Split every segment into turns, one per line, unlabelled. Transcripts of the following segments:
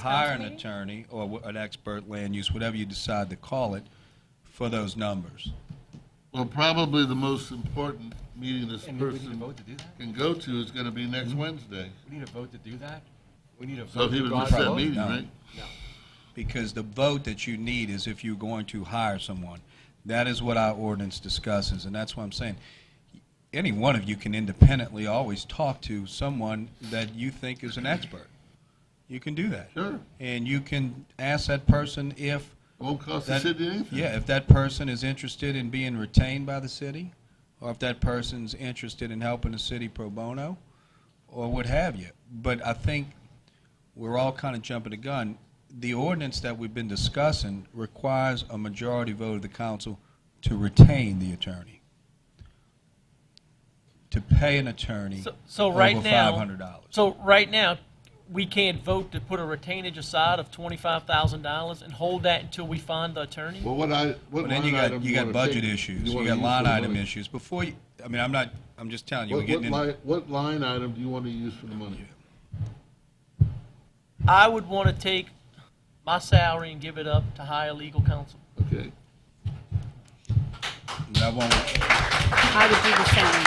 hire an attorney or w- an expert land use, whatever you decide to call it, for those numbers.
Well, probably the most important meeting this
And we Mm-hmm. need a
person
vote to do that?
can go to is gonna be next Wednesday.
We need a vote to do that? We need a vote.
So he
to
would
go
miss
out and
that
vote?
meeting,
No.
right?
Because the vote that you need is if you're going to hire someone. That is what our ordinance discusses, and that's what I'm saying. Any one of you can independently always talk to someone that you think is an expert. You can do that.
Sure.
And you can ask that person if,
Won't cost the
That-
city anything.
yeah, if that person is interested in being retained by the city, or if that person's interested in helping the city pro bono, or what have you. But I think we're all kind of jumping the gun. The ordinance that we've been discussing requires a majority vote of the council to retain the attorney, to pay an attorney
So- So
over
right
five
now,
hundred dollars.
so right now, we can't vote to put a retainage aside of twenty-five thousand dollars and hold that until we find the attorney?
Well, what I, what
But then
line
you
item
got, you got
wanna
budget
take?
issues, you
wanna
got
use
line
for the
item
money?
issues. Before you, I mean, I'm not, I'm just telling you, we're
What, what
getting in.
line, what line item do you wanna use for the money?
I would want to take my salary and give it up to hire legal counsel.
Okay.
That won't,
I would do the same.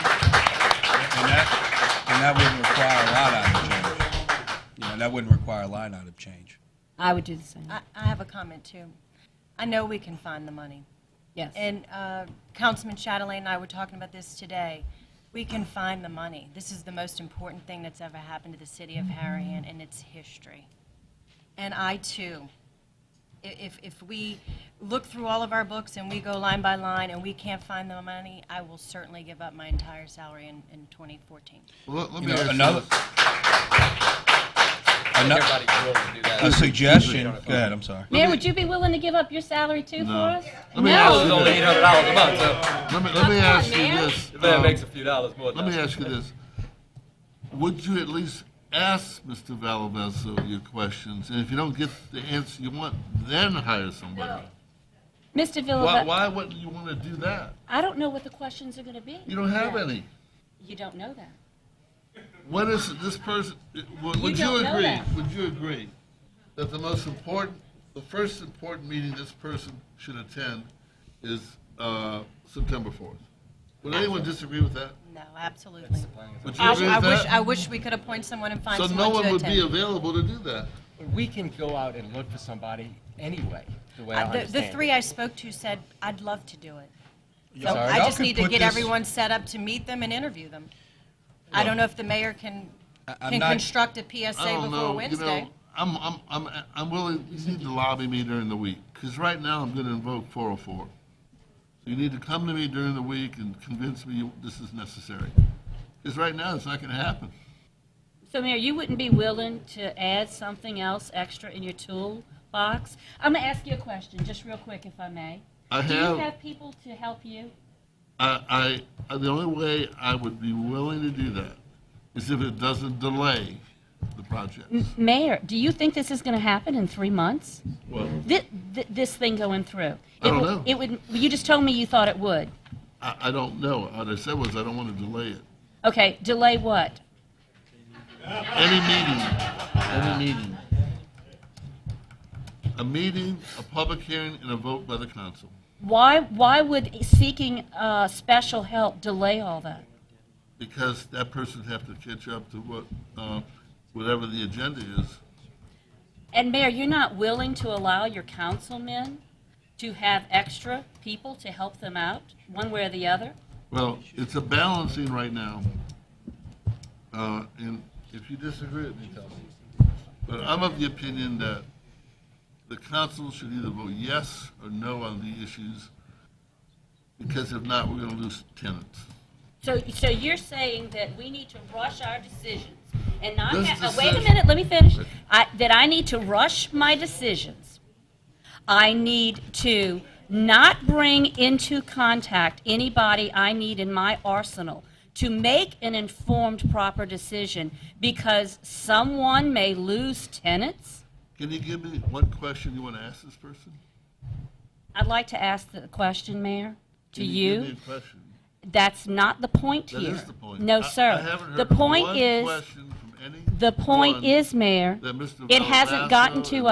And that, and that wouldn't require a line item change. You know, that wouldn't require a line item change.
I would do the same.
I, I have a comment too. I know we can find the money.
Yes.
And uh, Councilman Chatelain and I were talking about this today. We can find the money. This is the most important thing that's ever happened to the city of Harahan in its history. And I too, i- if, if we look through all of our books and we go line by line and we can't find the money, I will certainly give up my entire salary in, in 2014.
Well, let- let
You
me
know,
ask
another-
this.
Ano-
Everybody's willing to do that.
A suggestion, go ahead, I'm sorry.
Mayor, would you be willing to give up your salary too for
No.
us?
Let me
That
ask
was
you
only
this.
eight hundred dollars a month, so
Let me, let me
Come on,
ask you
man.
this.
that
um,
makes a few dollars more.
Let me ask you this. Would you at least ask Mr. Valavez your questions? And if you don't get the answer you want, then hire somebody.
Mr.
Why,
Villalobos,
why wouldn't you want to do that?
I don't know what the questions are going to be.
You don't have
yet.
any.
You don't know that.
What is it, this person, would would you
don't know
agree,
that.
would you agree that the most important, the first important meeting this person should attend is uh, September 4th? Would anyone disagree with that?
No, absolutely.
Would you
I
agree
I
with
wish, I
that?
wish we could appoint someone and find
So
someone
no
to
one would be
attend.
available to do that.
We can go out and look for somebody anyway, the way I
Uh, the-
understand
The
it.
three I spoke to said, I'd love to do it. So
sorry?
I
Y'all
just
can
need to
put
get
this-
everyone set up to meet them and interview them. I don't know if the mayor can,
I- I'm
can
not-
construct a
I
PSA
don't
before
know, you
Wednesday.
know, I'm, I'm, I'm, I'm willing, you need to lobby me during the week, because right now I'm gonna invoke four oh four. So you need to come to me during the week and convince me you- this is necessary. Because right now, it's not gonna happen.
So Mayor, you wouldn't be willing to add something else extra in your toolbox? I'm going to ask you a question, just real quick, if I may.
I
Do you
have,
have people to help you?
I, I, the only way I would be willing to do that is if it doesn't delay the project.
Mm. Mayor, do you think this is going to happen in three months?
Well,
Thi- thi- This thing going through?
I don't
It would-
know.
It would, you just told me you thought it would.
I, I don't know. What I said was I don't wanna delay it.
Okay, delay what?
Any meeting, any meeting. A meeting, a public hearing, and a vote by the council.
Why, why would seeking uh, special help delay all that?
Because that person have to catch up to what, uh, whatever the agenda is.
And Mayor, you're not willing to allow your councilmen to have extra people to help them out, one way or the other?
Well, it's a balancing right now. Uh, And if you disagree with me, tell me. But I'm of the opinion that the council should either vote yes or no on the issues, because if not, we're going to lose tenants.
So, so you're saying that we need to rush our decisions and not
This
have, uh, wait a
decision-
minute, let me finish. I, that I need to rush my decisions. I need to not bring into contact anybody I need in my arsenal to make an informed, proper decision because someone may lose tenants.
Can you give me one question you want to ask this person?
I'd like to ask the question, Mayor, to
Can you give
you.
me a question?
That's not the point
That
here.
is the point.
No,
I-
sir.
I haven't
The
heard
point
one
is.
question from
any
The point
one
is, Mayor,
that Mr.
it hasn't gotten
Valdosta
to
and
us.